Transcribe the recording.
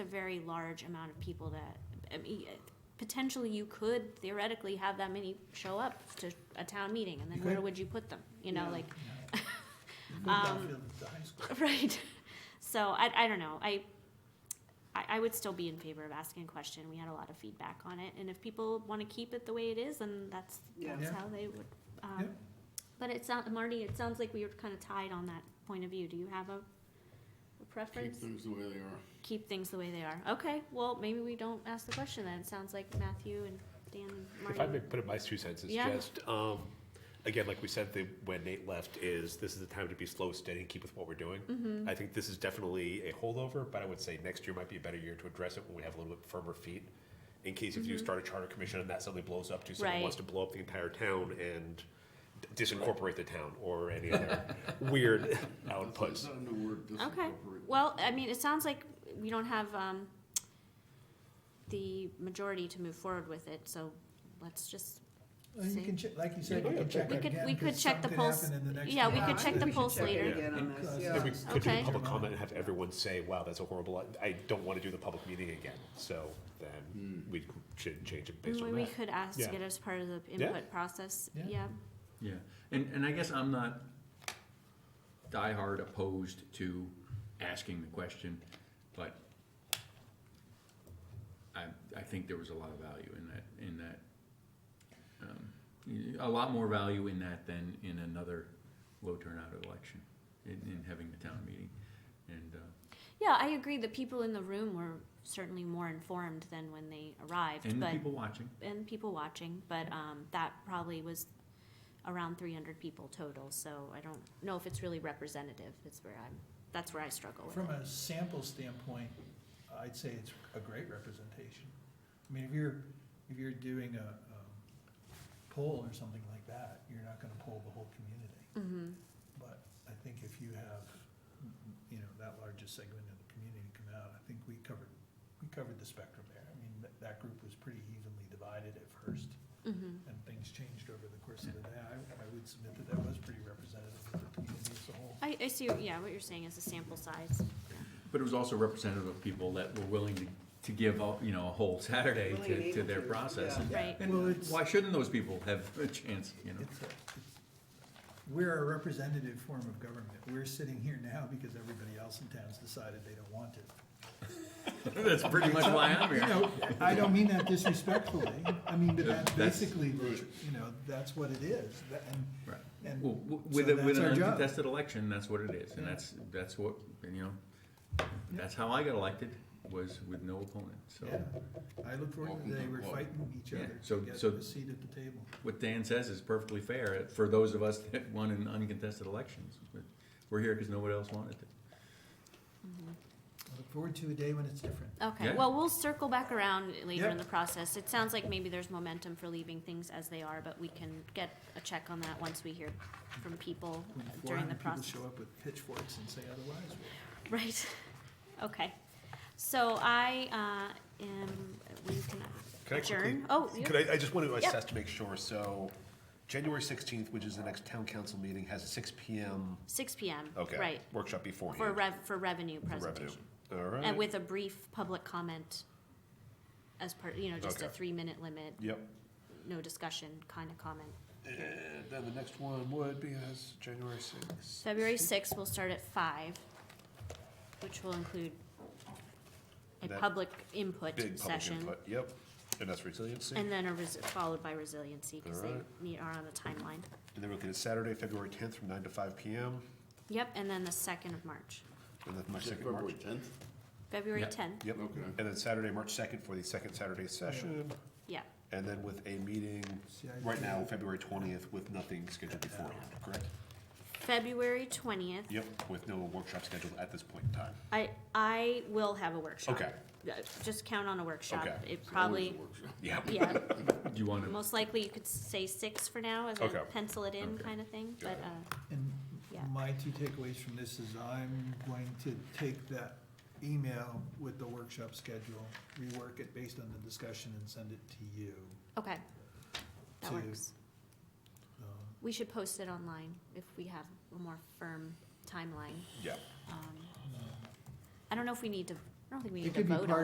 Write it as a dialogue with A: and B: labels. A: a very large amount of people that, I mean, potentially you could theoretically have that many show up to a town meeting, and then
B: You
A: where
B: could.
A: would you put them? You know,
B: Yeah.
A: like,
B: Move
A: Um,
B: Duffield to high school.
A: right? So I, I don't know, I, I, I would still be in favor of asking a question, we had a lot of feedback on it, and if people wanna keep it the way it is, then that's,
C: Yeah.
A: that's
B: Yeah.
A: how they would. um,
B: Yeah.
A: But it sound, Marty, it sounds like we were kinda tied on that point of view, do you have a a preference?
D: Keep things the way they are.
A: keep things the way they are. Okay, well, maybe we don't ask the question then. It sounds like Matthew and Dan and Marty.
E: If I may put in my two cents, it's
A: Yeah.
E: just, um, again, like we said, the, when Nate left, is this is the time to be slow, steady, and keep with what we're doing.
A: Mm-hmm.
E: I think this is definitely a holdover, but I would say next year might be a better year to address it when we have a little bit firmer feet. In case if you start a charter commission and that suddenly blows up, to someone
A: Mm-hmm. Right.
E: wants to blow up the entire town and disincorporate the town or any other weird
D: It's
E: outputs.
D: not a new word,
A: Okay,
D: disincorporate.
A: well, I mean, it sounds like we don't have, um, the majority to move forward with it, so let's just,
B: Well, you
A: See.
B: can check, like you said, you can check
A: we
B: it
A: could,
B: again.
A: we could
B: 'cause
A: check the
B: something
A: pulse.
B: happened in the next
A: Yeah, we
B: town
A: could
B: meeting.
A: check the
B: We should
A: pulse
B: check it
A: later.
C: again on
B: Because,
C: this,
B: uh,
C: yeah.
E: Then we could do
A: Okay.
E: a public comment and have everyone say, wow, that's a horrible, I I don't want to do the public meeting again. So
D: Hmm.
E: then we should change it based on
A: Mm, We
E: that.
A: could ask to
E: Yeah.
A: get as part of the
E: Yeah.
A: input process,
B: Yeah.
A: yeah.
F: Yeah, and, and I guess I'm not diehard opposed to asking the question, but I, I think there was a lot of value in that, in that. um, y- A lot more value in that than in another low turnout election, in, in having the town meeting. And, uh,
A: Yeah, I agree, the people in the room were certainly more informed than when they arrived, but.
F: and the people watching.
A: and people watching, but um, that probably was around 300 people total. So I don't know if it's really representative. It's where I'm. That's where I struggle with.
B: From
A: it.
B: a sample standpoint, I'd say it's a great representation. I mean, if you're, if you're doing a, um, poll or something like that, you're not gonna poll the whole community.
A: Mhm.
B: But I think if you have, you know, that largest segment of the community come out, I think we covered, we covered the spectrum there. I mean, that, that group was pretty evenly divided at first,
A: Mhm.
B: and things changed over the course of the day. I, I would submit that that was pretty representative of the community as a whole.
A: I, I see. Yeah, what you're saying is the sample size.
F: But it was also representative of people that were willing to, to give, a- you know, a whole Saturday
C: Willing and
F: to, to
C: able
F: their
C: to,
F: process.
C: yeah.
A: Right.
F: And-
B: Well,
F: And
B: it's-
F: why shouldn't those people have a chance, you know?
B: It's a- it's- We're a representative form of government. We're sitting here now because everybody else in town's decided they don't want it.
F: That's pretty much why I'm
B: You
F: here.
B: know, I don't mean that disrespectfully, I mean, but that's
F: That's-
B: basically, you know, that's what it is, That- and,
F: Right.
B: and.
F: Well, w-
B: so
F: With, a- with
B: that's
F: an
B: our job.
F: uncontested election, that's what it is, and that's, that's what, and, you know, that's how I got elected, was with no opponent, so.
B: Yeah. I look forward to
D: Welcome
B: the day
D: to
B: we're
D: club.
B: fighting each
F: Yeah,
B: other
F: so-
B: to get
F: so-
B: a seat at the table.
F: What Dan says is perfectly fair for those of us that won in uncontested elections, but we're here because nobody else wanted it.
B: I look forward to a day when it's different.
A: Okay.
F: Yeah.
A: Well, we'll circle back around later in
B: Yep.
A: the process. It sounds like maybe there's momentum for leaving things as they are, but we can get a check on that once we hear from people
B: When
A: during the
B: 400 people
A: process.
B: show up with pitchforks and say otherwise, well,
A: Right. Okay. So I uh, am. We can
E: Can I
A: adjourn.
E: quickly-
A: oh, yeah.
E: Could I, I just want to
A: Yep.
E: assess to make sure, so January sixteenth, which is the next town council meeting, has a six P M,
A: six p.m.
E: okay.
A: Right.
E: Workshop
A: For
E: beforehand.
A: rev, for revenue
E: for revenue.
A: presentation.
E: All
A: And
E: right,
A: with a brief public comment as part, you know, just a
E: Okay.
A: three-minute limit,
E: yep.
A: no discussion kind of comment.
E: And then the next one would be as January sixth.
A: February sixth, we'll start at five, which will include a
E: That
A: public input
E: Big public
A: session.
E: input, yep. And that's resiliency.
A: And then a resi- followed by resiliency, because they
E: Alright.
A: need, are on the timeline.
E: And then we're looking at Saturday, February tenth, from nine to five P M.
A: Yep, and then the second of March,
E: And then my
D: Is it
E: second March.
D: February tenth?
A: February
F: Yeah.
A: tenth,
E: Yep.
D: Okay.
E: And then Saturday, March second, for the second Saturday session.
A: yeah,
E: And then with a meeting
B: See, I
E: right
B: do-
E: now, February twentieth, with nothing scheduled beforehand, correct?
A: February twentieth.
E: Yep, with no workshop scheduled at this point in time.
A: I, I will have a workshop.
E: Okay.
A: Uh, Just count on a workshop,
E: Okay.
A: it
D: It's always a
A: probably,
D: workshop.
E: Yep.
A: yeah,
F: Do you want to?
A: most likely you could say six for now as a
E: Okay.
A: pencil it in
F: Okay.
A: kind of thing, but, uh,
B: And
A: Yeah.
B: my two takeaways from this is I'm going to take that email with the workshop schedule, rework it based on the discussion and send it to you.
A: okay. That
B: To-
A: works.
B: Um,
A: We should post it online if we have a more firm timeline.
E: Yeah.
A: Um, I don't know if we need to I don't think we
B: It
A: need to
B: could be
A: vote on
B: part